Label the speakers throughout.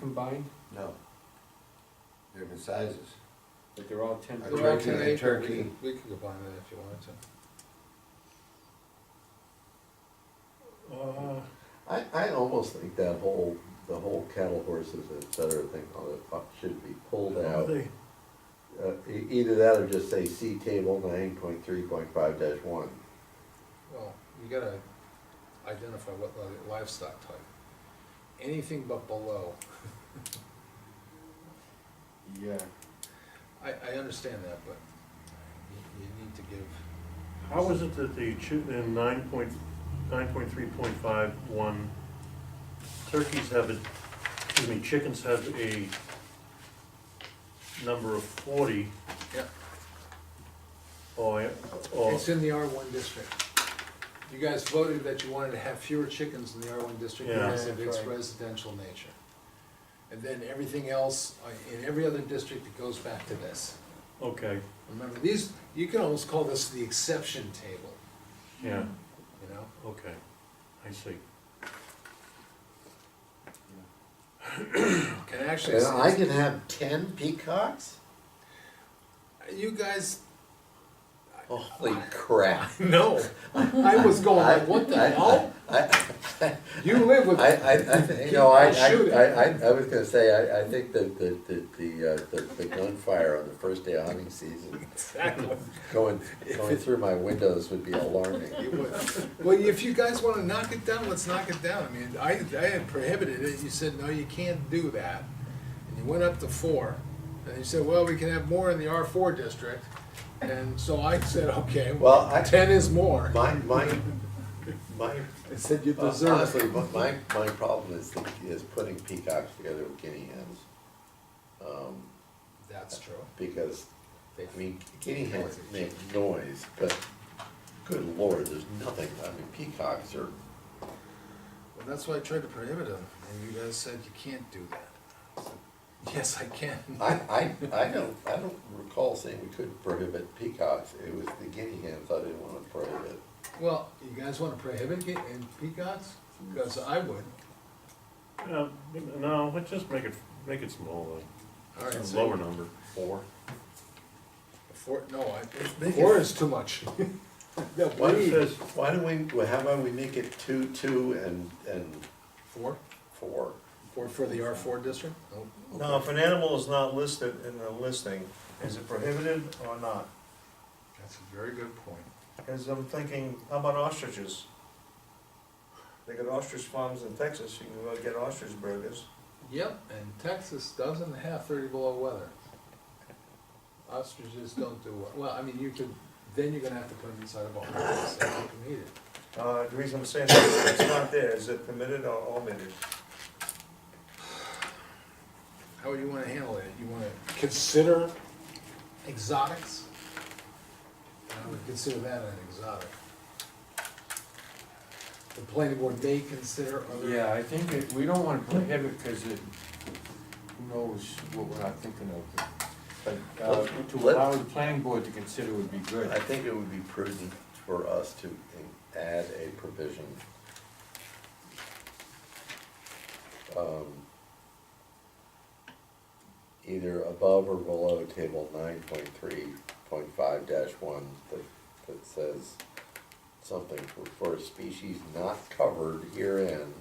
Speaker 1: combined?
Speaker 2: No. Different sizes.
Speaker 1: Like they're all ten
Speaker 2: A
Speaker 1: foot?
Speaker 3: They're all
Speaker 2: turkey,
Speaker 3: ten
Speaker 2: a
Speaker 3: acre.
Speaker 2: turkey.
Speaker 3: We could- We could combine that if you wanted to.
Speaker 4: I, I almost think that whole, the whole cattle horses, et cetera, thing, all that fuck should be pulled out. Uh, e- either that or just say C table nine point three point five dash one.
Speaker 3: Well, you gotta identify what li- livestock type. Anything but below,
Speaker 1: Yeah.
Speaker 3: I, I understand that, but you, you need to give,
Speaker 5: How is it that the, chu- in nine point, nine point three point five one, turkeys have a, excuse me, chickens have a number of forty,
Speaker 3: yeah,
Speaker 5: or, or,
Speaker 3: it's in the R one district. You guys voted that you wanted to have fewer chickens in the R one district
Speaker 5: Yeah.
Speaker 3: because of
Speaker 1: Yeah,
Speaker 3: its
Speaker 1: that's right.
Speaker 3: residential nature. And then everything else, uh, in every other district, it goes back to this.
Speaker 5: okay,
Speaker 3: Remember, these, you can almost call this the exception table,
Speaker 5: yeah,
Speaker 3: you know?
Speaker 5: okay, I see.
Speaker 3: Can actually.
Speaker 4: And I can have ten peacocks?
Speaker 3: You guys
Speaker 4: Holy crap.
Speaker 3: No, I was
Speaker 4: Oh,
Speaker 3: going like, what the hell? You live with.
Speaker 4: I, I, I, think- no, I, I, I, I- I was gonna say, I, I think that the, the, the, uh, the, the gunfire on the first day of hunting season,
Speaker 3: Exactly.
Speaker 4: going, going through my windows would be alarming.
Speaker 3: You would. Well, if you guys wanna knock it down, let's knock it down. I mean, I, I had prohibited it. You said, no, you can't do that. And you went up to four. And you said, well, we can have more in the R four district. And so I said, okay, well,
Speaker 4: Well, I,
Speaker 3: ten is more.
Speaker 4: my, my, my
Speaker 3: I said, you
Speaker 4: Well,
Speaker 3: deserve
Speaker 4: Honestly,
Speaker 3: it.
Speaker 4: my, my my problem is, the- is putting peacocks together with guinea hens. Um,
Speaker 3: That's true.
Speaker 4: because,
Speaker 3: They-
Speaker 4: I mean, guinea hens make noise, but good lord, there's nothing, I mean, peacocks are,
Speaker 3: Well, that's why I tried to prohibit them. And you guys said, you can't do that. I said, Yes, I can.
Speaker 4: I, I, I don't, I don't recall saying we could prohibit peacocks. It was the guinea hens I didn't wanna prohibit.
Speaker 3: Well, you guys wanna prohibit it in peacocks? Because I would.
Speaker 5: Uh, no, let's just make it, make it smaller,
Speaker 3: All right, so-
Speaker 5: lower number.
Speaker 4: Four.
Speaker 3: Four, no, I,
Speaker 4: Make it-
Speaker 3: four is too much. No,
Speaker 4: Why
Speaker 3: we-
Speaker 4: don't, why don't we, well, how about we make it two, two and, and
Speaker 3: Four?
Speaker 4: four?
Speaker 3: Four for the R four district? Nope.
Speaker 6: Now, if an animal is not listed in the listing, is it prohibited or not?
Speaker 3: That's a very good point.
Speaker 6: Because I'm thinking, how about ostriches? They got ostrich farms in Texas, you can go get ostrich burgers.
Speaker 3: Yep, and Texas doesn't have thirty below weather. Ostriches don't do well, well, I mean, you could, then you're gonna have to put them inside a barn, so you can eat it.
Speaker 6: Uh, the reason I'm saying that, it's not there, is it permitted or omitted?
Speaker 3: How you wanna handle it? You wanna consider exotics? I would consider that an exotic. The planning board may consider other.
Speaker 1: Yeah, I think it, we don't wanna prohibit, cause it, who knows what we're not thinking of. But, uh,
Speaker 4: Let-
Speaker 1: to
Speaker 4: let-
Speaker 1: allow the planning board to consider would be good.
Speaker 4: I think it would be prudent for us to in- add a provision. um, Either above or below table nine point three point five dash one that, that says something for, for a species not covered herein.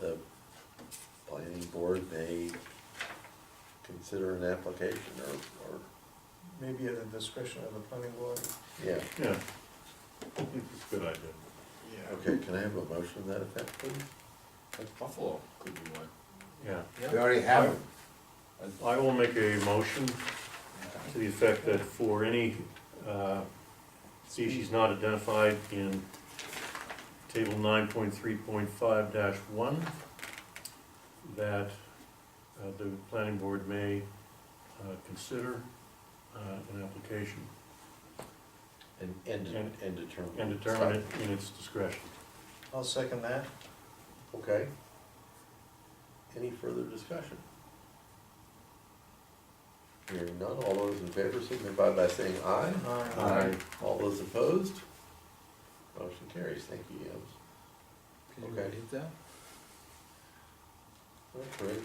Speaker 4: The planning board may consider an application or, or,
Speaker 6: Maybe at the discretion of the planning board.
Speaker 4: yeah.
Speaker 5: Yeah. Good idea.
Speaker 4: Okay, can I have a motion to that effect, please?
Speaker 1: Like Buffalo could be one.
Speaker 5: Yeah.
Speaker 3: Yeah.
Speaker 4: already have it.
Speaker 5: I will make a motion to the effect that for any uh, species not identified in table nine point three point five one, that uh, the planning board may uh, consider uh, an application
Speaker 4: And, and,
Speaker 5: And-
Speaker 4: and determine.
Speaker 5: and determine it in its discretion.
Speaker 6: I'll second that.
Speaker 4: Okay. Any further discussion? Hearing none, all those in favor signify by saying aye.
Speaker 6: Uh, Aye.
Speaker 4: All those opposed? Motion carries, thank you, Yams.
Speaker 3: Can you
Speaker 4: Okay.
Speaker 3: repeat that?
Speaker 4: That creates